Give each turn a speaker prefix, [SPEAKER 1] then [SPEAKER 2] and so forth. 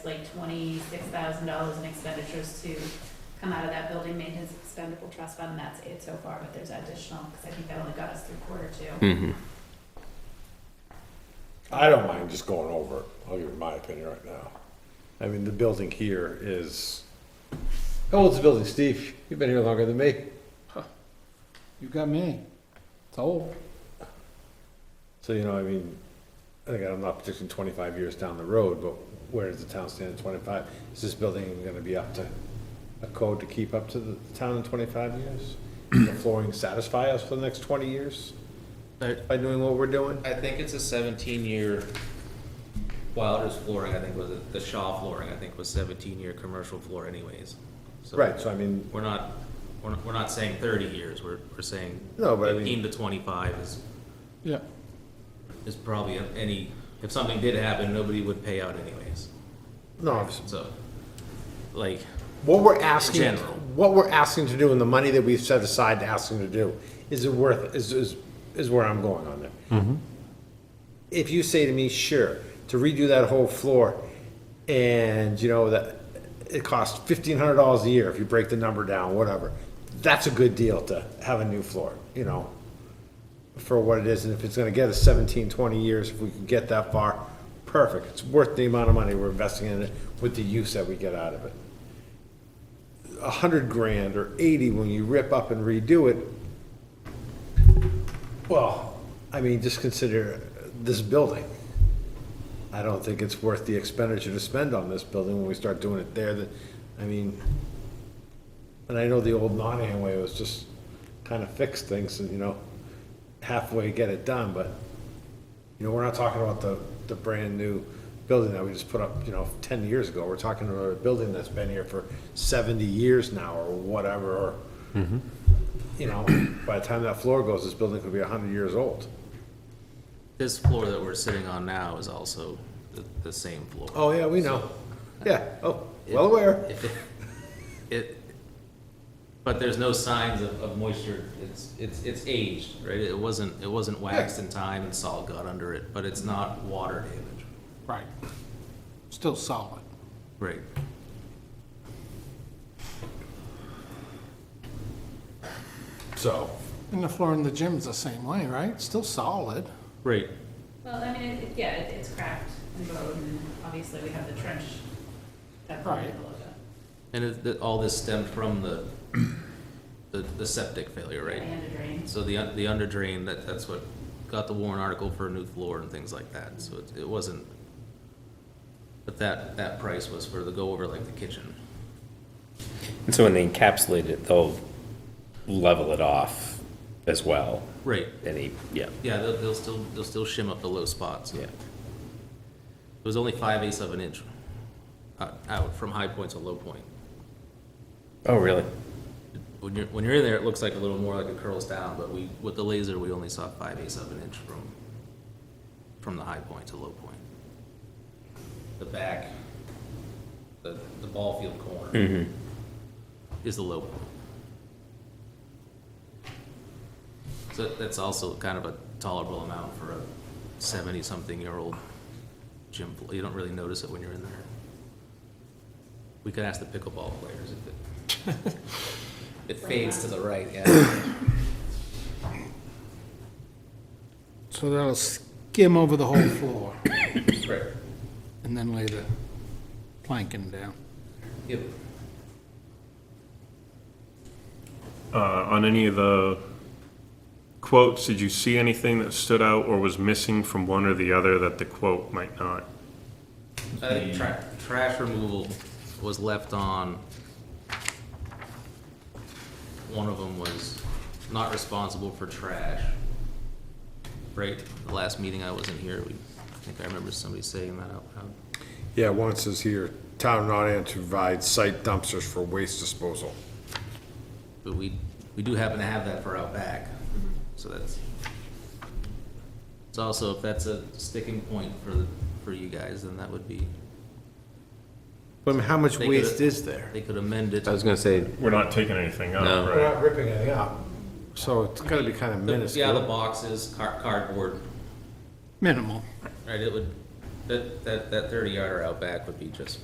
[SPEAKER 1] like twenty-six thousand dollars in expenditures to come out of that building maintenance expendable trust fund, and that's it so far, but there's additional, because I think that only got us through quarter two.
[SPEAKER 2] Mm-hmm.
[SPEAKER 3] I don't mind just going over it. I'll give you my opinion right now. I mean, the building here is, how old's the building, Steve? You've been here longer than me.
[SPEAKER 4] You got me. It's old.
[SPEAKER 3] So, you know, I mean, I think I'm not predicting twenty-five years down the road, but where does the town stand in twenty-five? Is this building even gonna be up to a code to keep up to the town in twenty-five years? Will The flooring satisfy us for the next twenty years
[SPEAKER 5] I
[SPEAKER 3] by doing what we're doing?
[SPEAKER 5] I think it's a seventeen year, Wilder's flooring, I think was, it- the Shaw flooring, I think was seventeen year commercial floor anyways. So
[SPEAKER 3] Right, so I mean,
[SPEAKER 5] We're not, we're not, we're not saying thirty years, we're, we're saying
[SPEAKER 3] No, but I mean-
[SPEAKER 5] fifteen to twenty-five is,
[SPEAKER 4] Yeah.
[SPEAKER 5] is probably a- any, if something did happen, nobody would pay out anyways,
[SPEAKER 3] no, obviously,
[SPEAKER 5] so. Like,
[SPEAKER 3] What we're asking,
[SPEAKER 5] General.
[SPEAKER 3] what we're asking to do and the money that we've set aside to ask them to do, is it worth, is, is, is where I'm going on there. If you say to me, sure, to redo that whole floor and, you know, that, it costs fifteen hundred dollars a year if you break the number down, whatever. That's a good deal to have a new floor, you know, for what it is. And if it's gonna get us 17, 20 years, if we can get that far, perfect. It's worth the amount of money we're investing in it with the use that we get out of it a hundred grand or eighty when you rip up and redo it, well, I mean, just consider this building. I don't think it's worth the expenditure to spend on this building when we start doing it there, that, I mean, and I know the old Nottingham way was just kind of fix things and, you know, halfway get it done, but, you know, we're not talking about the, the brand-new building that we just put up, you know, ten years ago. We're talking about a building that's been here for seventy years now, or whatever, or,
[SPEAKER 5] Mm-hmm.
[SPEAKER 3] you know, by the time that floor goes, this building could be a hundred years old.
[SPEAKER 5] this floor that we're sitting on now is also the, the same floor.
[SPEAKER 3] Oh, yeah, we know. Yeah, oh, well aware.
[SPEAKER 5] If it- It, but there's no signs of, of moisture, it's, it's, it's aged, right? It wasn't, it wasn't waxed in time and salt got under it, but it's not water damage.
[SPEAKER 4] Right. Still solid.
[SPEAKER 5] Right.
[SPEAKER 3] So,
[SPEAKER 4] And the floor in the gym's the same way, right? Still solid.
[SPEAKER 5] Right.
[SPEAKER 1] Well, I mean, it, it- yeah, it- it's cracked and bowed, and obviously we have the trench that probably
[SPEAKER 4] Right.
[SPEAKER 1] below that.
[SPEAKER 5] And it, that, all this stemmed from the, the, the septic failure, right?
[SPEAKER 1] And a drain.
[SPEAKER 5] So the, un- the under drain, that, that's what got the Warren article for a new floor and things like that, so it, it wasn't. But that, that price was for the go over like the kitchen.
[SPEAKER 2] And so when they encapsulate it, they'll level it off as well.
[SPEAKER 5] Right.
[SPEAKER 2] Any, yeah,
[SPEAKER 5] Yeah, they'll, they'll still, they'll still shim up the low spots.
[SPEAKER 2] yeah.
[SPEAKER 5] It was only five eighths of an inch uh, out from high point to low point.
[SPEAKER 2] Oh, really?
[SPEAKER 5] When you're, when you're in there, it looks like a little more like it curls down, but we, with the laser, we only saw five eighths of an inch from, from the high point to low point. The back, the, the ball field corner
[SPEAKER 2] Mm-hmm.
[SPEAKER 5] is the low point. So that's also kind of a tolerable amount for a seventy-something-year-old gym floor. You don't really notice it when you're in there. We could ask the pickleball players if it, it fades to the right, yeah.
[SPEAKER 4] So that'll skim over the whole floor
[SPEAKER 5] Right.
[SPEAKER 4] and then lay the planking down.
[SPEAKER 5] Yep.
[SPEAKER 6] Uh, on any of the quotes, did you see anything that stood out or was missing from one or the other that the quote might not?
[SPEAKER 5] I think tra- trash removal was left on. One of them was not responsible for trash. Right, the last meeting I wasn't here, we, I think I remember somebody saying that out loud.
[SPEAKER 3] yeah, one says here, town not in to provide site dumpsters for waste disposal.
[SPEAKER 5] But we, we do happen to have that for out back, so that's. It's also, if that's a sticking point for, the- for you guys, then that would be,
[SPEAKER 3] But I mean, how much
[SPEAKER 5] They could-
[SPEAKER 3] waste is there?
[SPEAKER 5] they could amend it.
[SPEAKER 7] I was gonna say,
[SPEAKER 6] We're not taking anything
[SPEAKER 7] No.
[SPEAKER 6] out,
[SPEAKER 3] We're
[SPEAKER 6] right?
[SPEAKER 3] not ripping anything up, so it's gotta be kind of
[SPEAKER 5] The- Yeah, the
[SPEAKER 3] minuscule.
[SPEAKER 5] boxes, car- cardboard,
[SPEAKER 4] Minimal.
[SPEAKER 5] right, it would, that, that, that thirty yarder out back would be just